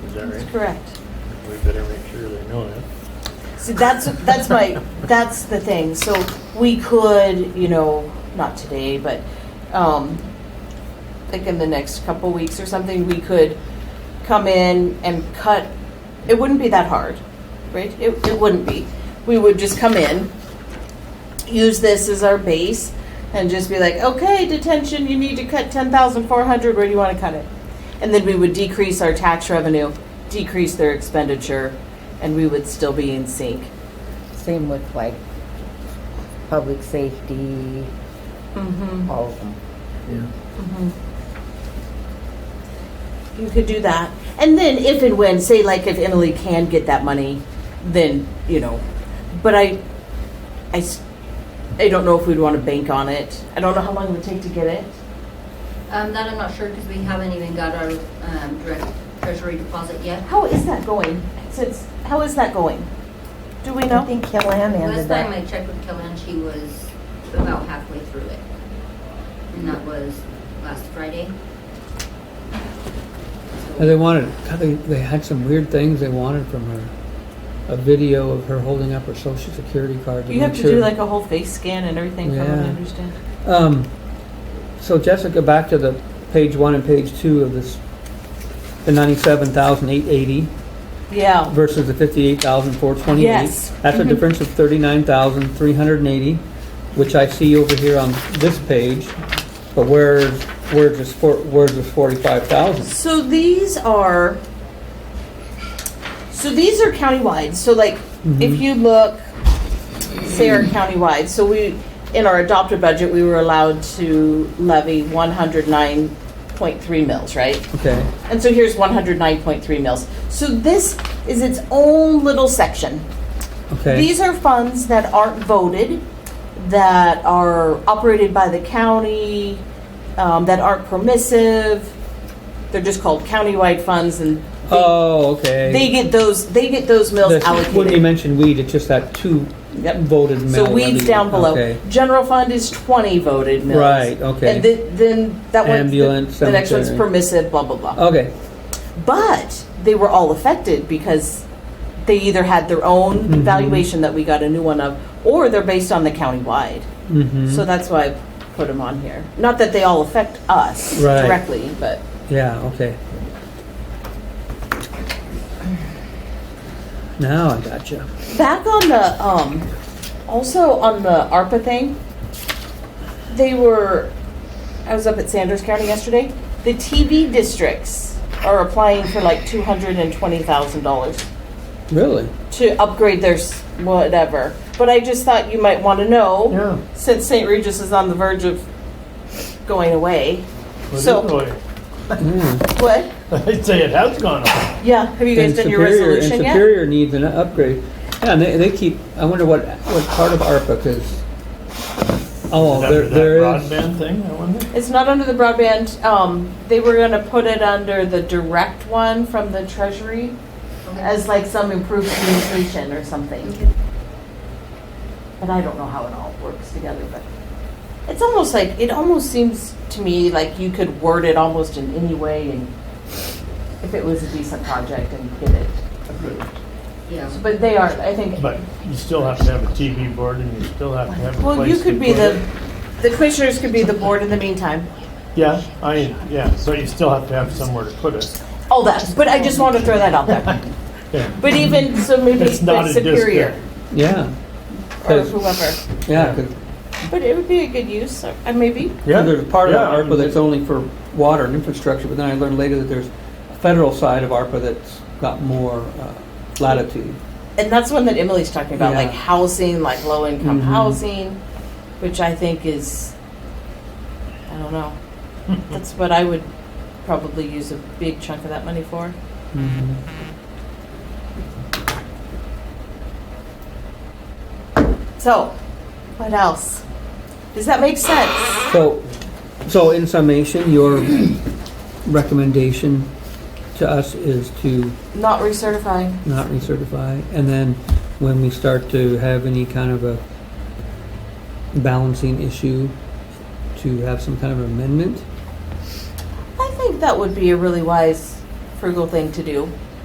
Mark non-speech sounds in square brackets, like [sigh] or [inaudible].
is that right? Correct. We better make sure they know that. See, that's, that's my, that's the thing. So we could, you know, not today, but, um, like in the next couple weeks or something, we could come in and cut, it wouldn't be that hard, right? It, it wouldn't be. We would just come in, use this as our base and just be like, okay, detention, you need to cut ten thousand four hundred, where do you wanna cut it? And then we would decrease our tax revenue, decrease their expenditure, and we would still be in sync. Same with like public safety, Mm-hmm. all of them. You could do that. And then if and when, say like if Emily can get that money, then, you know, but I, I, s- I don't know if we'd wanna bank on it. I don't know how long it would take to get it. Um, that I'm not sure because we haven't even got our, um, direct treasury deposit yet. How is that going? Since, how is that going? Do we I know? think Killam ended Last time I that. checked with Kellen, she was about halfway through it. And that was last Friday. And they wanted, God, they, they had some weird things they wanted from her. A video of her holding up her social security card. You have make to do sure- like a whole face scan and everything from what I Yeah. understand. Um, so Jessica, back to the page one and page two of this, the ninety-seven thousand eight eighty Yeah, versus the fifty-eight thousand four twenty-eight. Yes. That's a Mhm. difference of thirty-nine thousand three hundred and eighty, which I see over here on this page. But where, where's this four, where's this forty-five thousand? so these are, so these are countywide, so like, if Mhm. you look, say our countywide, so we, in our adopted budget, we were allowed to levy one hundred nine point three mils, right? Okay, And so here's one hundred nine point three mils. So this is its own little section. okay. These are funds that aren't voted, that are operated by the county, um, that aren't permissive. They're just called countywide funds, and they, Oh, okay. they get those they get those mills This- When you allocated. mentioned weed, it's just that two Yep. voted mill. So weeds levy. down below. Okay. General fund is twenty voted mills. Right, okay. And then, then that one, Ambulance, the, the next one's cemetery. Oh, permissive, blah blah blah. Okay, But they were all affected because they either had their own Mhm. valuation that we got a new one of, or they're based on the countywide. So mhm, that's why I put them on here. Not that they all affect us Right. directly, but yeah, okay. Now I gotcha. back on the um, also on the ARPA thing, they were. I was up at Sanders County yesterday. The TV districts are applying for like two hundred and twenty thousand dollars. Really? to upgrade their s- whatever. But I just thought you might want to know Yeah. since St. Regis is on the verge of going away. Well, So- anyway, [laughs] Mm. What? I'd say it has gone up. Yeah. Have you guys And done your Superior, and resolution yet? Superior needs an upgrade. Yeah, and they, they keep, I wonder what, what part of ARPA, cause, oh, Is that there, for that there is. Broadband thing, I wonder? It's not under the broadband. Um, they were going to put it under the direct one from the Treasury Okay. as like some improved communication or something. Okay. But I don't know how it all works together. But it's almost like it almost seems to me like you could word it almost in any way, and if it was a decent project and get it approved. Yeah. So, But they are, I think. But you still have to have a TV board and you still have to have a place. Well, you to could be put the it. the commissioners could be the board in the meantime. Yeah, I, yeah, so you still have to have somewhere to put it. All that, but I just want to throw that [laughs] out there. Yeah. But even so, maybe It's not but a district. superior Yeah, or 'Cause- whoever. yeah, cause But it would be a good use, or- uh, maybe. So There's a part of yeah, I mean, ARPA that's only for water and infrastructure, but then I learned later that there's a federal side of ARPA that's got more uh, latitude. And that's one that Emily's talking about, Yeah. like housing, like low income Mhm. housing, which I think is, I don't know. that's what I would probably use a big chunk of that money for. Mm-hmm. So, what else? Does that make sense? So, so in summation, your recommendation to us is to Not recertifying. not recertify, and then when we start to have any kind of a balancing issue, to have some kind of amendment? I think that would be a really wise, frugal thing to do.